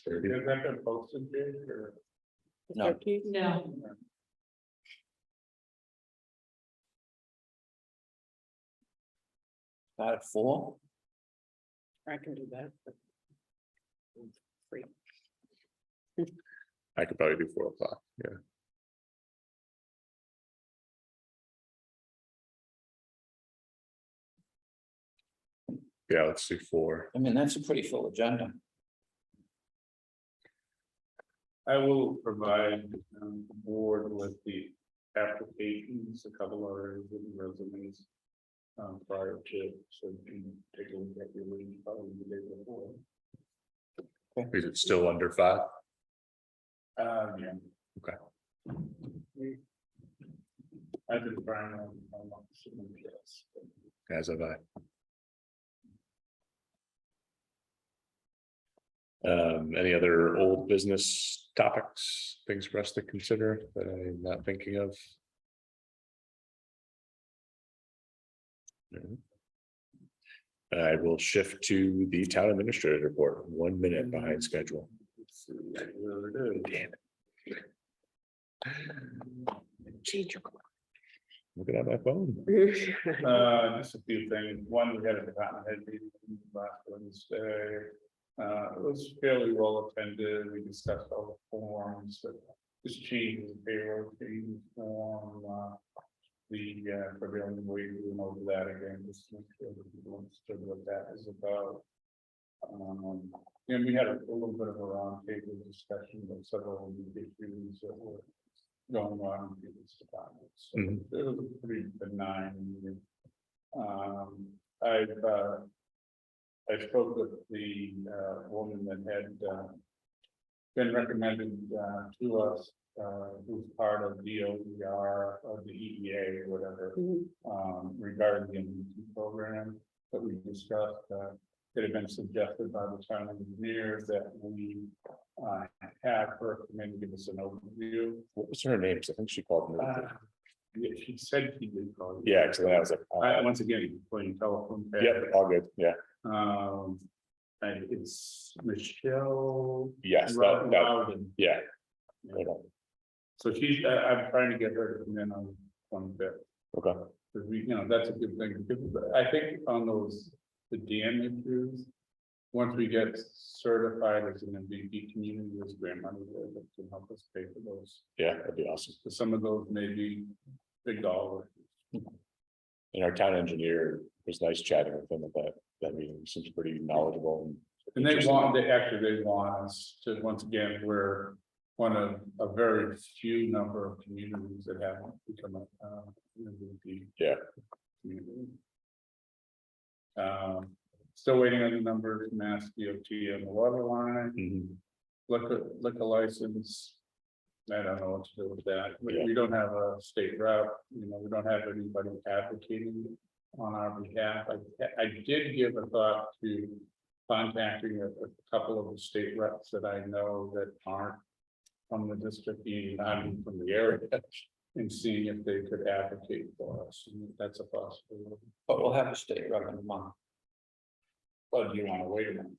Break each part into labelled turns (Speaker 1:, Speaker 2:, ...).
Speaker 1: Is that been posted yet, or?
Speaker 2: No.
Speaker 3: No.
Speaker 2: About at four?
Speaker 3: I can do that. Free.
Speaker 1: I could probably do four o'clock, yeah. Yeah, let's do four.
Speaker 2: I mean, that's a pretty full agenda.
Speaker 1: I will provide um the board with the applications, a couple of written resumes. Um prior to, so you can take a look at your lead probably the day before.
Speaker 2: Okay.
Speaker 1: Is it still under five? Um, yeah. Okay. I've been trying on. on some of this. As have I. Um, any other old business topics, things for us to consider that I'm not thinking of? No. I will shift to the town administrator report, one minute behind schedule. Damn it. Looking at my phone. Uh, just a few things. One, we had a department head meeting last Wednesday. Uh, it was fairly well attended. We discussed all the forms, but this change in payroll change form, uh. The uh, prevailing wage, we went over that again, just to make sure that people understood what that is about. Um, and we had a little bit of a roundtable discussion about several of the issues that were going on in this department. So it was a pretty benign. meeting. Um, I've, uh. I spoke with the, uh, woman that had, uh. Been recommended, uh, to us, uh, who's part of D O E R or the E E A or whatever um, regarding the MVP program that we discussed, uh, that had been suggested by the town engineer that we uh, have her come in and give us an overview. What was her name? I think she called me. Yeah, she said she did call. Yeah, actually, I was like. I, once again, playing telephone. Uh, Yeah, all good, yeah. Um, and it's Michelle. Yes, yeah. So she's, I, I'm trying to get her to come in on, on that. Okay. Cause we, you know, that's a good thing, because I think on those, the DM issues. Once we get certified as an MVP community, there's grant money there that can help us pay for those. Yeah, that'd be awesome. Some of those may be big dollar. And our town engineer was nice chatting with him about that meeting, seems pretty knowledgeable. And they want, they actually, they want us to, once again, we're one of a very few number of communities that haven't become a, uh, MVP. Yeah. Um, still waiting on the numbers, Mass DOT on the water
Speaker 4: Mm-hmm.
Speaker 1: line. Liquor, liquor license. I don't know what to do with that, we, we don't have a state route, you know, we don't have anybody advocating on our behalf. I, I did give a thought to contacting a, a couple of the state reps that I know that aren't from the district, being not even from the area, and seeing if they could advocate for us, and that's a possibility.
Speaker 2: But we'll have a state rep in a month.
Speaker 1: Well, do you wanna wait a minute?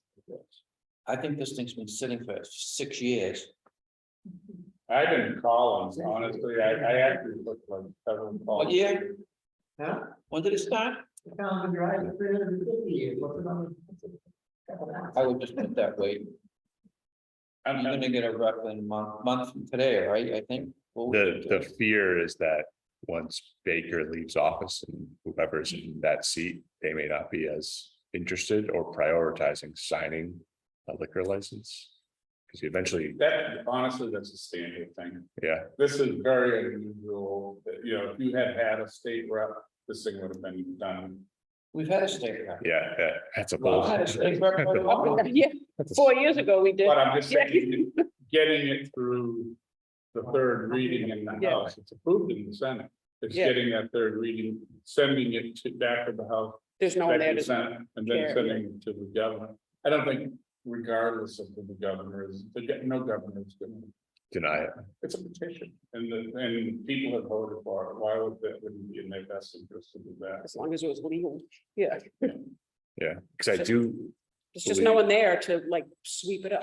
Speaker 2: I think this thing's been sitting for six years.
Speaker 1: I didn't call them, honestly, I, I actually looked like seven calls.
Speaker 2: What year?
Speaker 5: Huh?
Speaker 2: When did it start?
Speaker 5: The common drive, three hundred and fifty years, what's it on?
Speaker 2: I would just put it that way.
Speaker 1: I'm,
Speaker 2: I'm
Speaker 1: I'm-
Speaker 2: gonna get a rep in a month, month from today, right? I think.
Speaker 4: The, the fear is that once Baker leaves office and whoever's in that seat, they may not be as interested or prioritizing signing a liquor license. Because eventually,
Speaker 1: that, honestly, that's a standard thing,
Speaker 4: yeah,
Speaker 1: this is very unusual, that, you know, if you had had a state rep, this thing would have been done.
Speaker 2: We've had a state rep.
Speaker 4: yeah, yeah, that's a
Speaker 2: We've
Speaker 4: bold.
Speaker 2: had a state rep for a while.
Speaker 3: Yeah,
Speaker 4: that's a-
Speaker 3: four years ago we did.
Speaker 1: But I'm just saying, getting it through the third reading in the
Speaker 3: Yeah.
Speaker 1: House, it's approved in the Senate. It's
Speaker 3: Yeah.
Speaker 1: getting that third reading, sending it to back to the House,
Speaker 3: There's no one
Speaker 1: back
Speaker 3: there
Speaker 1: to the
Speaker 3: to.
Speaker 1: Senate, and then
Speaker 3: care.
Speaker 1: sending it to the governor. I don't think regardless of who the governor is, the, go- no governor is gonna,
Speaker 4: Deny it.
Speaker 1: it's a petition. And the, and people have voted for it, why would that, wouldn't be in their best interest to do that?
Speaker 3: As long as it was legal, yeah,
Speaker 4: Because I do,
Speaker 3: there's just no one there to like sweep it up.